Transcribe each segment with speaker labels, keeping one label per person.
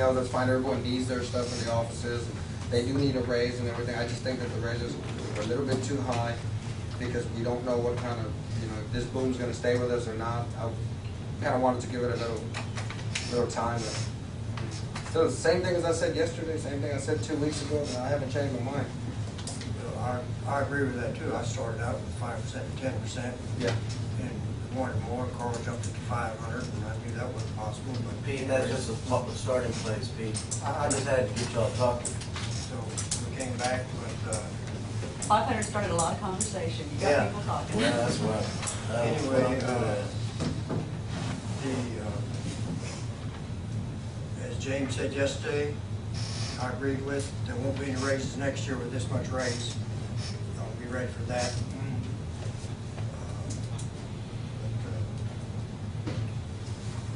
Speaker 1: know, that's fine, everyone needs their stuff in the offices, they do need a raise and everything, I just think that the raises are a little bit too high, because we don't know what kind of, you know, if this boom's gonna stay with us or not, I kinda wanted to give it a little, little time. So the same thing as I said yesterday, same thing I said two weeks ago, and I haven't changed my mind.
Speaker 2: I, I agree with that too. I started out with five percent and ten percent
Speaker 1: Yeah.
Speaker 2: and wanted more. Carl jumped it to five hundred and I knew that wasn't possible, but.
Speaker 3: Pete, that's just a pl- a starting place, Pete.
Speaker 2: I-
Speaker 3: I just had to get y'all talking.
Speaker 2: So we came back, but, uh,
Speaker 4: 500 started a lot of conversation, you got
Speaker 3: Yeah.
Speaker 4: people talking.
Speaker 3: Yeah, that's what, that's what I'm
Speaker 2: Anyway,
Speaker 3: good
Speaker 2: uh,
Speaker 3: at.
Speaker 2: the, uh, as James said yesterday, I agree with, there won't be any raises next year with this much raise. I'll be ready for that. Uh, But,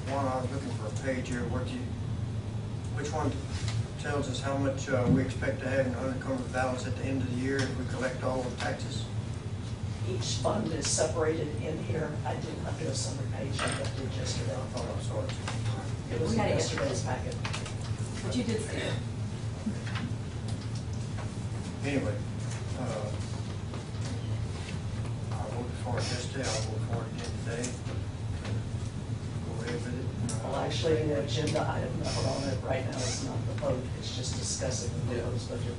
Speaker 2: uh, One, I was looking for a page here, what do you, which one tells us how much uh, we expect to have in unencumbered balance at the end of the year if we collect all the taxes?
Speaker 5: Each fund is separated in here. I didn't, I've got a summary page I got did
Speaker 2: I
Speaker 5: yesterday.
Speaker 2: thought I saw it.
Speaker 5: It was
Speaker 4: We
Speaker 5: in
Speaker 4: had it
Speaker 5: yesterday's packet.
Speaker 4: But you did see it.
Speaker 2: Anyway, uh, I voted for it yesterday, I'll vote for it again today. Go ahead with it.
Speaker 5: Well, actually, the agenda item number on it right now is not the vote, it's just discussing the proposed budget.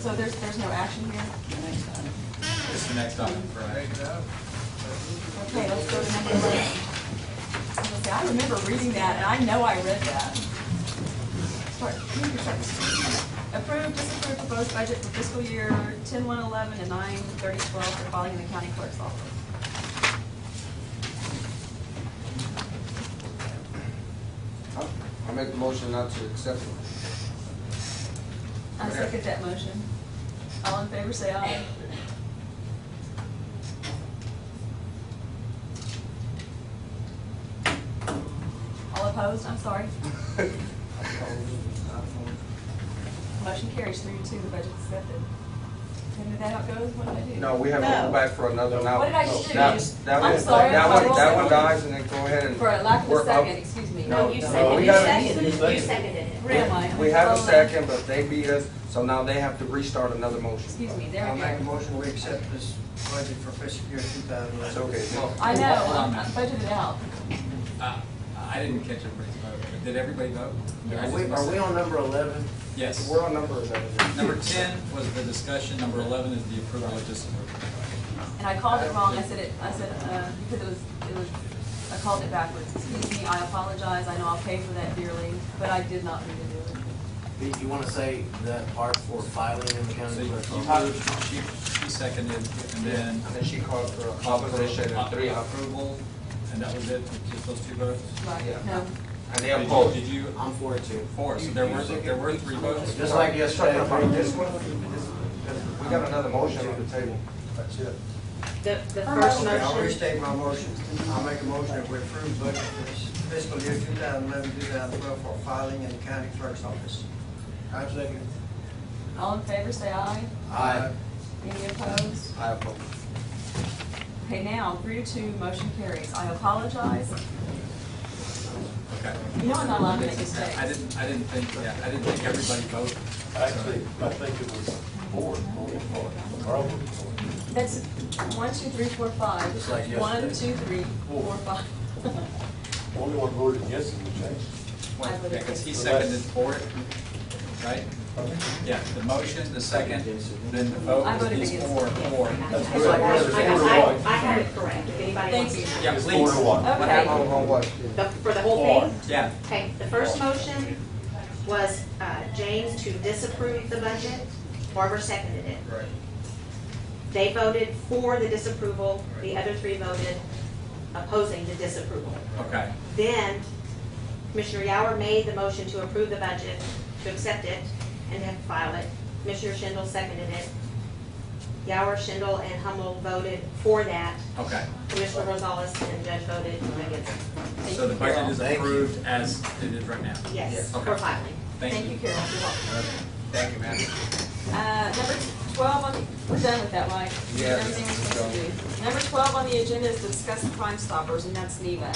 Speaker 4: So there's, there's no action here? The next item.
Speaker 6: It's the next item for action.
Speaker 4: Okay, let's go to number 11. I was gonna say, I remember reading that, and I know I read that. Start, you can start this. Approve, disapprove proposed budget for fiscal year 10-111 and 9-30-12 for filing in the county clerk's office.
Speaker 1: I I make the motion not to accept it.
Speaker 4: I second that motion. All in favor, say aye. All opposed, I'm sorry. Motion carries three to two, the budget's accepted. And is that how it goes? What did I do?
Speaker 1: No, we haven't gone
Speaker 4: No.
Speaker 1: back for another now.
Speaker 4: What did I just do?
Speaker 1: That- that
Speaker 4: I'm
Speaker 1: one-
Speaker 4: sorry,
Speaker 1: That
Speaker 4: I'm
Speaker 1: one,
Speaker 4: wrong.
Speaker 1: that one dies and then go ahead and.
Speaker 4: For a lack of a
Speaker 1: work up.
Speaker 4: second, excuse me.
Speaker 1: No,
Speaker 7: No, you
Speaker 1: no,
Speaker 7: seconded,
Speaker 1: we
Speaker 7: you
Speaker 1: gotta-
Speaker 7: seconded, you seconded it.
Speaker 4: Where am I? I'm
Speaker 1: We have a
Speaker 4: scrolling.
Speaker 1: second, but they beat us, so now they have to restart another motion.
Speaker 4: Excuse me, there
Speaker 2: I'll
Speaker 4: we
Speaker 2: make a
Speaker 4: go.
Speaker 2: motion, we accept this budget for fiscal year two thousand eleven.
Speaker 1: It's okay.
Speaker 4: I know,
Speaker 6: Hold on a
Speaker 4: I'm I'm
Speaker 6: minute.
Speaker 4: budgeted out.
Speaker 6: Uh, I didn't catch everybody's vote. Did everybody vote? Did I
Speaker 3: Are
Speaker 6: just
Speaker 3: we,
Speaker 6: miss
Speaker 3: are we
Speaker 6: it?
Speaker 3: on number eleven?
Speaker 6: Yes.
Speaker 1: We're on number eleven.
Speaker 6: Number ten was the discussion, number eleven is the approval of disapproval.
Speaker 4: And I called it wrong, I said it, I said, uh, because it was, it was, I called it backwards. Excuse me, I apologize, I know I'll pay for that dearly, but I did not mean to do it.
Speaker 3: Pete, you wanna say that part for filing in the
Speaker 6: So
Speaker 3: county
Speaker 6: you
Speaker 3: clerk's
Speaker 6: you
Speaker 3: office?
Speaker 6: moved, she, she seconded, and then
Speaker 1: And she called for
Speaker 6: called for
Speaker 1: opposition and three, op-
Speaker 6: approval, and that was it, just those two votes?
Speaker 1: Yeah.
Speaker 4: Right, no.
Speaker 1: and they
Speaker 6: Did you-
Speaker 1: opposed.
Speaker 6: Did you,
Speaker 3: I'm for it too.
Speaker 6: four, so there were, there were three votes?
Speaker 3: Just like yesterday.
Speaker 1: Talking about this one, this, this- we got another motion on the table.
Speaker 2: That's it.
Speaker 7: The, the
Speaker 4: Her
Speaker 7: first
Speaker 4: motion.
Speaker 2: Okay, I'll
Speaker 7: motion,
Speaker 2: restate my motion. I'll make a motion that we approve budget for this fiscal year two thousand eleven, two thousand twelve for filing in the county clerk's office. I second.
Speaker 4: All in favor, say aye.
Speaker 3: Aye.
Speaker 4: Any opposed?
Speaker 1: I oppose.
Speaker 4: Okay, now, three to two, motion carries. I apologize.
Speaker 6: Okay.
Speaker 4: You know I'm not allowed to make mistakes.
Speaker 6: I didn't, I didn't think, yeah, I didn't think everybody voted.
Speaker 8: Actually, I think it was four, only four, probably four.
Speaker 4: That's one, two, three, four, five.
Speaker 3: Just like
Speaker 4: One, two,
Speaker 3: yesterday.
Speaker 4: three, four, five.
Speaker 8: Only one voted yes in the change.
Speaker 4: I voted
Speaker 6: Because he
Speaker 8: yes.
Speaker 6: seconded for it, right? Yeah, the motion, the second, then the vote
Speaker 4: I voted
Speaker 6: is
Speaker 4: against
Speaker 6: four,
Speaker 4: it, yeah.
Speaker 6: four.
Speaker 8: That's
Speaker 7: I,
Speaker 8: good.
Speaker 7: I, I had it correct, if anybody
Speaker 4: Thank
Speaker 7: wants
Speaker 4: you.
Speaker 7: to.
Speaker 6: Yeah,
Speaker 8: It's
Speaker 6: please.
Speaker 8: four to one.
Speaker 6: What
Speaker 4: Okay.
Speaker 1: On,
Speaker 6: happened?
Speaker 1: on what?
Speaker 7: The, for the whole thing?
Speaker 6: Yeah,
Speaker 7: Okay, the first motion was, uh, James to disapprove the budget, Barbara seconded it.
Speaker 2: Right.
Speaker 7: They voted for the disapproval, the other three voted opposing the disapproval.
Speaker 6: okay,
Speaker 7: Then Commissioner Yauer made the motion to approve the budget, to accept it, and then file it. Commissioner Schindel seconded it. Yauer, Schindel, and Hummel voted for that.
Speaker 6: okay.
Speaker 7: Commissioner Rosales and Judge voted against it.
Speaker 6: So the budget is approved as it is right now.
Speaker 7: Yes,
Speaker 6: Okay.
Speaker 7: for filing.
Speaker 6: Thank you.
Speaker 4: Carol. You're welcome.
Speaker 1: Thank you, man.
Speaker 4: Uh, number twelve on, the- we're done with that, right?
Speaker 1: Yeah.
Speaker 4: Everything we're supposed to do. Number twelve on the agenda is to discuss Crime Stoppers, and that's NEVA.